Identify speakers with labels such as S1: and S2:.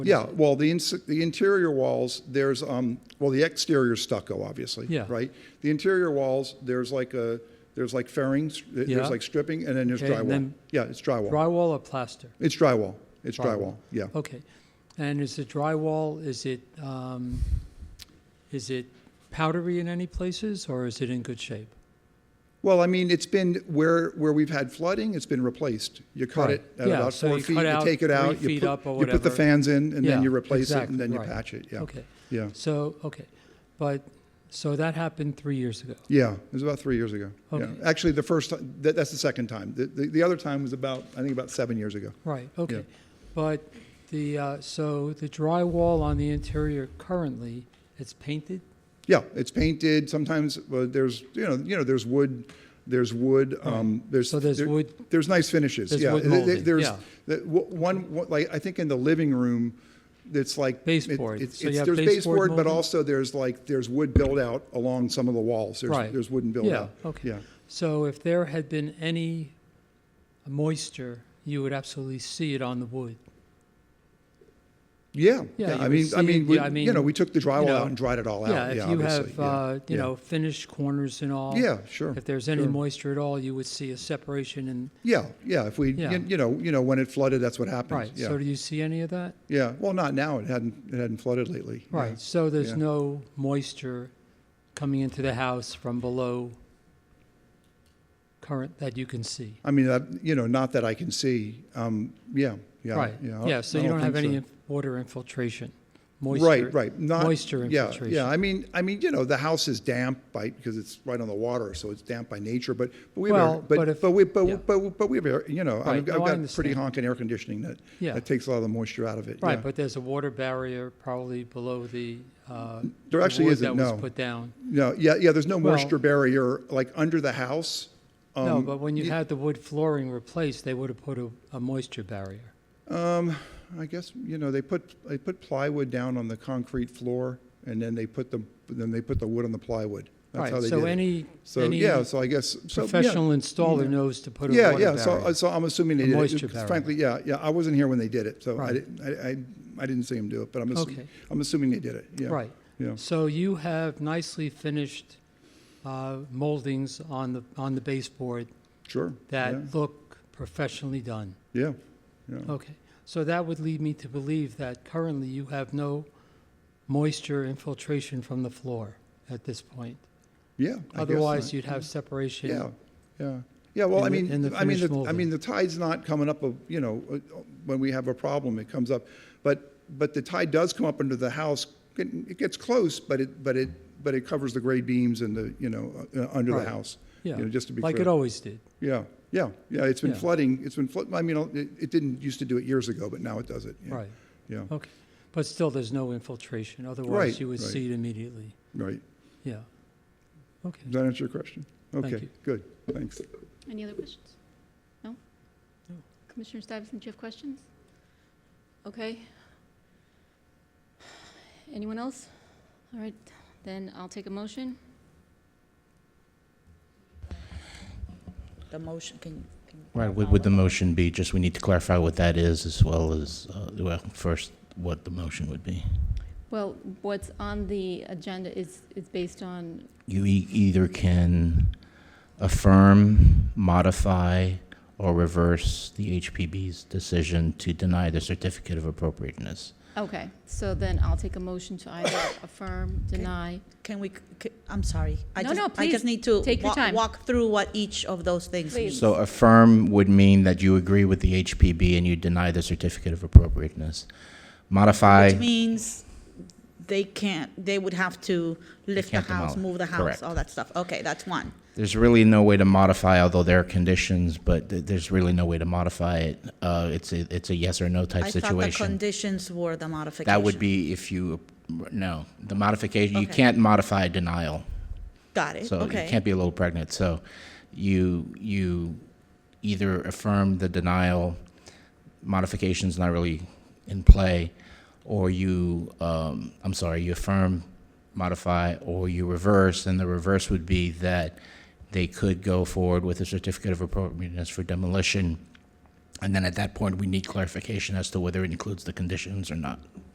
S1: Yeah, well, the ins- the interior walls, there's, um, well, the exterior stucco, obviously.
S2: Yeah.
S1: Right? The interior walls, there's like a, there's like fairings, th-
S2: Yeah.
S1: there's like stripping, and then there's
S2: Okay, and
S1: drywall.
S2: then
S1: Yeah, it's drywall.
S2: Drywall or plaster?
S1: It's drywall. It's
S2: Drywall.
S1: drywall, yeah.
S2: Okay. And is it drywall, is it, um, is it powdery in any places, or is it in good shape?
S1: Well, I mean, it's been where, where we've had flooding, it's been replaced. You cut
S2: Right.
S1: it at
S2: Yeah,
S1: about
S2: so
S1: four
S2: you
S1: feet,
S2: cut
S1: you
S2: out
S1: take it
S2: three
S1: out, you
S2: feet up
S1: put,
S2: or
S1: you put the
S2: whatever.
S1: fans in, and then
S2: Yeah,
S1: you replace it,
S2: exactly,
S1: and then you
S2: right.
S1: patch it, yeah.
S2: Okay.
S1: Yeah,
S2: So, okay, but, so that happened three years ago.
S1: yeah, it was about three years ago. Yeah.
S2: Okay.
S1: Actually, the first, ti- that, that's the second time. The, the, the other time was about, I think about seven years ago.
S2: Right, okay. But the, uh, so the drywall on the interior currently, it's painted?
S1: Yeah, it's painted. Sometimes uh, there's you know you know there's wood, there's wood. Um, there's
S2: So there's
S1: there-
S2: wood-
S1: There's nice finishes.
S2: There's
S1: yeah,
S2: wood
S1: There- there-
S2: molding,
S1: there's
S2: yeah.
S1: the- w- one, one- like I think in the living room, it's like it-
S2: Baseboard.
S1: it's-
S2: So you
S1: it's-
S2: have
S1: there's
S2: baseboard
S1: baseboard, but
S2: molding?
S1: also there's like there's wood build out along some of the walls. There's,
S2: Right.
S1: There's wooden build
S2: Yeah,
S1: out.
S2: okay.
S1: Yeah.
S2: So if there had been any moisture, you would absolutely see it on the wood?
S1: Yeah.
S2: Yeah, you
S1: I
S2: would
S1: mean, I
S2: see-
S1: mean, we,
S2: yeah, I
S1: you
S2: mean,
S1: know, we took the drywall
S2: you know,
S1: out and dried it all
S2: Yeah,
S1: out.
S2: if
S1: yeah.
S2: you
S1: obviously.
S2: have,
S1: Yeah,
S2: uh, you
S1: yeah.
S2: know, finished corners and all.
S1: Yeah, sure,
S2: If there's any
S1: sure.
S2: moisture at all, you would see a separation and,
S1: Yeah, yeah. If we,
S2: Yeah.
S1: you, you know, you know, when it flooded, that's what happened.
S2: right,
S1: Yeah.
S2: so do you see any of that?
S1: yeah. Well, not now. It hadn't. It hadn't flooded lately. Yeah.
S2: Right, so there's
S1: yeah.
S2: no moisture coming into the house from below current that you can see?
S1: I mean, that, you know, not that I can see. Um, yeah, yeah.
S2: Right,
S1: I-
S2: yeah, so
S1: I
S2: you don't have
S1: think
S2: any
S1: so.
S2: inf- water infiltration, moisture.
S1: Right, right. Not-
S2: Moisture
S1: yeah,
S2: infiltration.
S1: Yeah, I mean, I mean, you know, the house is damp by, because it's right on the water, so it's damp by nature, but, but we have, air-
S2: Well, but
S1: but,
S2: if-
S1: but we, but,
S2: yeah.
S1: but, but we have, air- you know,
S2: Right,
S1: I've, I've
S2: no, I
S1: got pretty
S2: understand.
S1: honking air conditioning that,
S2: Yeah.
S1: that takes a lot of the moisture out of it. yeah.
S2: Right, but there's a water barrier probably below the, uh.
S1: There
S2: the
S1: actually
S2: wood
S1: isn't,
S2: That
S1: no.
S2: was put down.
S1: No, yeah, yeah, there's no
S2: Well-
S1: moisture barrier, like, under the house.
S2: No,
S1: Um,
S2: but when you
S1: y-
S2: had the wood flooring replaced, they would have put a, a moisture barrier.
S1: Um, I guess, you know, they put, they put plywood down on the concrete floor, and then they put the, then they put the wood on the plywood. That's
S2: Right,
S1: how they did
S2: so
S1: it.
S2: any,
S1: So,
S2: any
S1: yeah, so I guess, so, yeah.
S2: professional installer knows to put a
S1: Yeah,
S2: water
S1: yeah, so, uh,
S2: barrier.
S1: so I'm assuming they
S2: A
S1: did it.
S2: moisture
S1: 'cause
S2: barrier.
S1: Frankly, yeah, yeah, I wasn't here when they did it, so I
S2: Right.
S1: didn't, I, I, I didn't see them do it, but I'm assuming,
S2: Okay.
S1: I'm assuming they did it, yeah.
S2: Right.
S1: Yeah,
S2: So you have nicely finished uh, moldings on the, on the baseboard
S1: sure. yeah,
S2: that look professionally done.
S1: Yeah, yeah.
S2: Okay, so that would lead me to believe that currently you have no moisture infiltration from the floor at this point.
S1: Yeah. I guess
S2: Otherwise,
S1: not.
S2: you'd have separation.
S1: Yeah, yeah. Yeah, well,
S2: in
S1: I
S2: the-
S1: mean,
S2: in the
S1: I mean,
S2: finished
S1: the- I
S2: molding.
S1: mean, the tide's not coming up, of- you know, uh, when we have a problem, it comes up. But, but the tide does come up under the house. It it gets close, but it, but it, but it covers the grade beams and the, you know, uh, uh, under the
S2: Right.
S1: house.
S2: Yeah,
S1: You know, just to be
S2: like it
S1: clear.
S2: always did.
S1: Yeah, yeah, yeah, it's been
S2: Yeah.
S1: flooding, it's been flood, I mean, uh, it, it didn't used to do it years ago, but now it does it. yeah,
S2: Right,
S1: Yeah,
S2: okay. But still, there's no infiltration,
S1: Right,
S2: otherwise you would
S1: right.
S2: see it immediately.
S1: right.
S2: Yeah. Okay,
S1: Does that answer your question?
S2: Thank
S1: Okay,
S2: you.
S1: good, thanks.
S3: Any other questions? No?
S2: No.
S3: Commissioner Stuyvesant, do you have questions? Okay. Anyone else? All right, then I'll take a motion.
S4: The motion, can you? can you
S5: Right, would,
S4: clarify
S5: would the
S4: what-
S5: motion be, just we need to clarify what that is as well as, uh, well, first, what the motion would be.
S3: Well, what's on the agenda is, is based on,
S5: You e- either can affirm, modify, or reverse the HPB's decision to deny the certificate of appropriateness.
S3: okay, so then I'll take a motion to either affirm, deny.
S4: Can we, c- I'm sorry. I
S3: No,
S4: just-
S3: no,
S4: I
S3: please,
S4: just need to.
S3: take your
S4: wa-
S3: time.
S4: Walk through what each of those things
S3: Please.
S4: means.
S5: So affirm would mean that you agree with the HPB and you deny the certificate of appropriateness.
S4: Which
S5: Modify,
S4: means they can't, they would have to lift the
S5: can't
S4: house,
S5: demolish.
S4: move the house,
S5: Correct.
S4: all that stuff. Okay, that's one.
S5: there's really no way to modify, although there are conditions, but th- there's really no way to modify it. Uh, It's a, it's a yes or no type
S4: I thought the
S5: situation.
S4: conditions were the modification.
S5: That would be if you, no, the modification, you
S4: Okay.
S5: can't modify denial.
S4: Got it,
S5: So you
S4: okay.
S5: can't be a little pregnant. So you, you either affirm the denial, modification's not really in play, or you, um, I'm sorry, you affirm, modify, or you reverse, and the reverse would be that they could go forward with a certificate of appropriateness for demolition And then at that point, we need clarification as to whether it includes the conditions or not.